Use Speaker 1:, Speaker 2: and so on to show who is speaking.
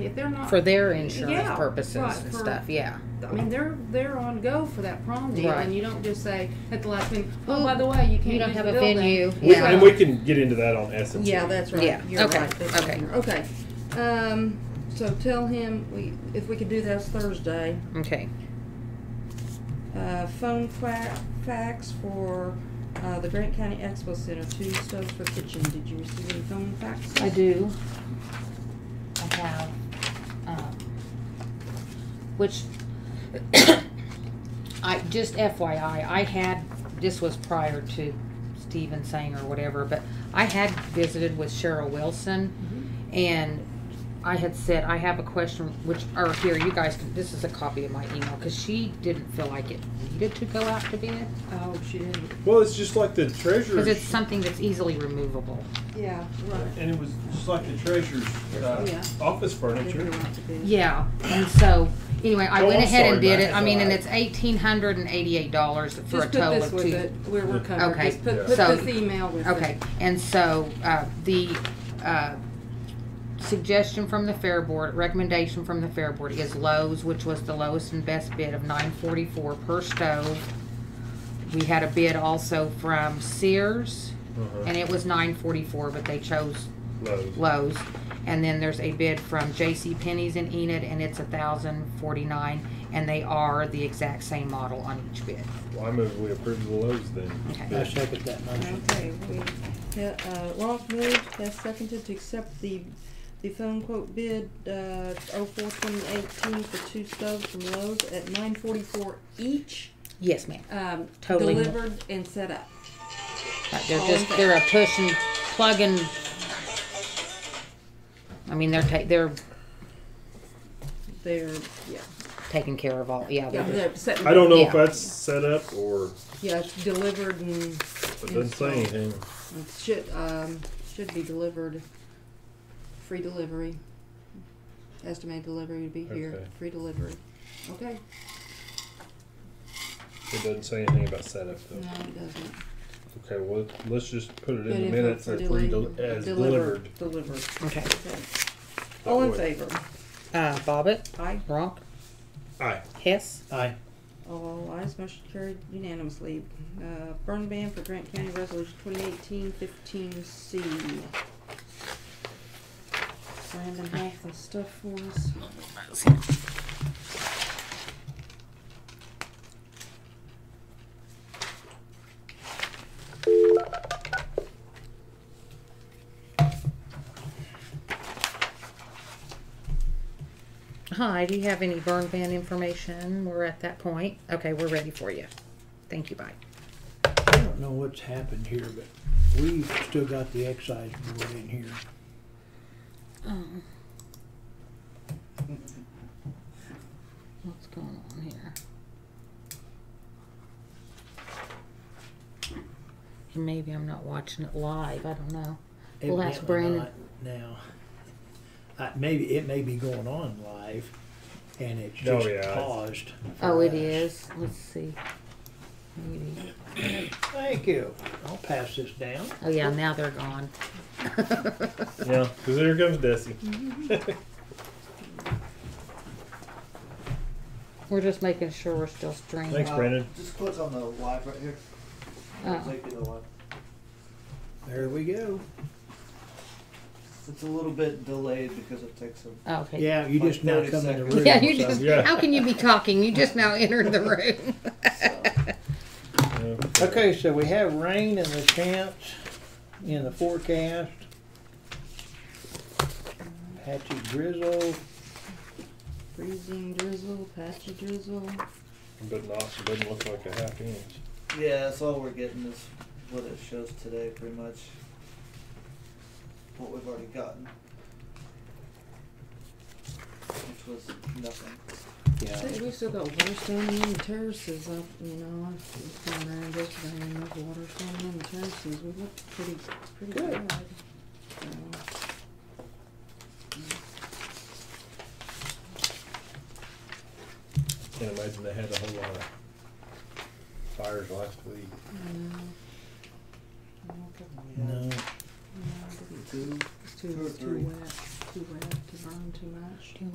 Speaker 1: If they're not,
Speaker 2: for their insurance
Speaker 1: Yeah,
Speaker 2: purposes
Speaker 1: right,
Speaker 2: and
Speaker 1: for-
Speaker 2: stuff. Yeah.
Speaker 1: I mean, they're, they're on go for that prom deal
Speaker 2: Right.
Speaker 1: and you don't just say at the last minute, oh,
Speaker 2: Ooh,
Speaker 1: by the way, you
Speaker 2: You
Speaker 1: can't
Speaker 2: don't
Speaker 1: use
Speaker 2: have
Speaker 1: the
Speaker 2: a
Speaker 1: building."
Speaker 2: venue.
Speaker 3: We-
Speaker 2: Yeah.
Speaker 3: And we can get into that on essence.
Speaker 1: Yeah, that's right.
Speaker 2: Yeah.
Speaker 1: You're
Speaker 2: Okay.
Speaker 1: right. That's
Speaker 2: Okay.
Speaker 1: in here. Okay. Um, so tell him we, if we could do this Thursday,
Speaker 2: Okay.
Speaker 1: uh, phone fa- fax for, uh, the Grant County Expo Center, two stoves for kitchen. Did you receive any phone faxes?
Speaker 2: I do. I have, um, which, I, just FYI, I had, this was prior to Steven saying or whatever, but I had visited with Cheryl Wilson
Speaker 1: Mm-hmm.
Speaker 2: and I had said, I have a question, which, or here, you guys can, this is a copy of my email, cause she didn't feel like it needed to go out to bid,
Speaker 1: Oh, she didn't.
Speaker 3: Well, it's just like the treasurer's.
Speaker 2: cause it's something that's easily removable.
Speaker 1: Yeah, right.
Speaker 3: And it was just like the treasurer's uh,
Speaker 1: Yeah.
Speaker 3: office
Speaker 1: Didn't
Speaker 3: furniture.
Speaker 1: go out to bid.
Speaker 2: Yeah, and so, anyway, I
Speaker 3: Oh,
Speaker 2: went
Speaker 3: I'm
Speaker 2: ahead and
Speaker 3: sorry,
Speaker 2: did
Speaker 3: Matt,
Speaker 2: it, I
Speaker 3: it's
Speaker 2: mean, and
Speaker 3: alright.
Speaker 2: it's eighteen hundred and eighty-eight dollars for a
Speaker 1: Just put
Speaker 2: total
Speaker 1: this
Speaker 2: of
Speaker 1: with it,
Speaker 2: two.
Speaker 1: where we're covered.
Speaker 2: Okay.
Speaker 1: Just put,
Speaker 3: Yeah.
Speaker 1: put
Speaker 2: So-
Speaker 1: this email with it.
Speaker 2: Okay, and so, uh, the, uh, suggestion from the fair board, recommendation from the fair board is Lowe's, which was the lowest and best bid of nine forty-four per stove. We had a bid also from Sears,
Speaker 3: Uh-huh.
Speaker 2: and it was nine forty-four, but they chose
Speaker 3: Lowe's.
Speaker 2: Lowe's. And then there's a bid from J.C. Penney's in Enid, and it's a thousand forty-nine, and they are the exact same model on each bid.
Speaker 3: Well, I move we approve the Lowe's then.
Speaker 4: I
Speaker 2: Okay.
Speaker 4: second that motion.
Speaker 1: Okay, we, uh, Ronk moved, Hess seconded to accept the, the phone quote bid, uh, oh four twenty eighteen for two stoves from Lowe's at nine forty-four each,
Speaker 2: Yes, ma'am.
Speaker 1: um,
Speaker 2: Totally.
Speaker 1: delivered and set up.
Speaker 2: Right, They're just, they're a push and plug and, I mean, they're ta- they're
Speaker 1: They're, yeah,
Speaker 2: taking care of all, yeah,
Speaker 1: yeah,
Speaker 2: they're just-
Speaker 1: they're setting.
Speaker 3: I don't know if
Speaker 2: Yeah.
Speaker 3: that's set up or
Speaker 1: Yeah, it's delivered and
Speaker 3: it doesn't say anything.
Speaker 1: it should, um, should be delivered, free delivery. Estimated delivery would be here,
Speaker 3: Okay.
Speaker 1: free delivery. Okay,
Speaker 3: It doesn't say anything about setup though.
Speaker 1: no, it doesn't.
Speaker 3: Okay, well, let's just put it in
Speaker 1: Good
Speaker 3: the
Speaker 1: info
Speaker 3: minutes
Speaker 1: for
Speaker 3: as, we
Speaker 1: deli-
Speaker 3: del- as
Speaker 1: delivered-
Speaker 3: delivered.
Speaker 1: Delivered,
Speaker 2: okay.
Speaker 1: okay.
Speaker 3: That
Speaker 1: All in
Speaker 3: way.
Speaker 1: favor?
Speaker 2: Uh, Bobbit,
Speaker 1: Aye.
Speaker 2: Ronk,
Speaker 3: Aye.
Speaker 2: Hess,
Speaker 4: Aye.
Speaker 1: All ayes, motion carried unanimously. Uh, burn ban for Grant County Resolution 2018-15C. Brandon has the stuff for us.
Speaker 2: Hi, do you have any burn ban information? We're at that point. Okay, we're ready for you. Thank you, bye.
Speaker 4: I don't know what's happened here, but we've still got the excise board in here.
Speaker 2: Um. What's going on here? And maybe I'm not watching it live, I don't know. Well, that's
Speaker 4: Evidently
Speaker 2: Brandon.
Speaker 4: not Now, I, maybe, it may be going on live and it's
Speaker 3: Oh,
Speaker 4: just
Speaker 3: yeah.
Speaker 4: paused. for
Speaker 2: Oh, it
Speaker 4: us.
Speaker 2: is, let's see. Maybe,
Speaker 4: Thank you. I'll pass this down.
Speaker 2: oh yeah, now they're gone.
Speaker 3: Yeah, because here comes Desi.
Speaker 2: We're just making sure we're still streaming.
Speaker 3: Thanks, Brandon.
Speaker 5: Just click on the live right here.
Speaker 2: Oh.
Speaker 5: Click to the live.
Speaker 4: There we go.
Speaker 5: It's a little bit delayed because it takes a.
Speaker 2: Oh, Okay.
Speaker 4: Yeah, you just now
Speaker 5: Like
Speaker 4: come in the
Speaker 5: 30
Speaker 4: room.
Speaker 2: Yeah, you
Speaker 4: so-
Speaker 2: just,
Speaker 3: Yeah.
Speaker 2: how can you be talking? You just now entered the room.
Speaker 5: So.
Speaker 3: Uh,
Speaker 4: Okay, so we have rain in the chance, in the forecast. Patchy drizzle,
Speaker 1: Freezing drizzle, patchy drizzle.
Speaker 3: But not, it doesn't look like a half inch.
Speaker 5: Yeah, that's all we're getting is what it shows today, pretty much. What we've already gotten. Which was nothing.
Speaker 1: I
Speaker 4: yeah.
Speaker 1: think we still got water standing on the terraces up, you know, it's going around yesterday and enough water standing on the terraces. We looked pretty, pretty
Speaker 4: Good.
Speaker 1: good. So.
Speaker 3: Can't imagine they had a whole lot of fires last week.
Speaker 1: No,
Speaker 4: No,
Speaker 5: Two.
Speaker 1: it's
Speaker 5: Two
Speaker 1: too,
Speaker 5: or
Speaker 1: it's
Speaker 5: three.
Speaker 1: too wet. too red to burn too much.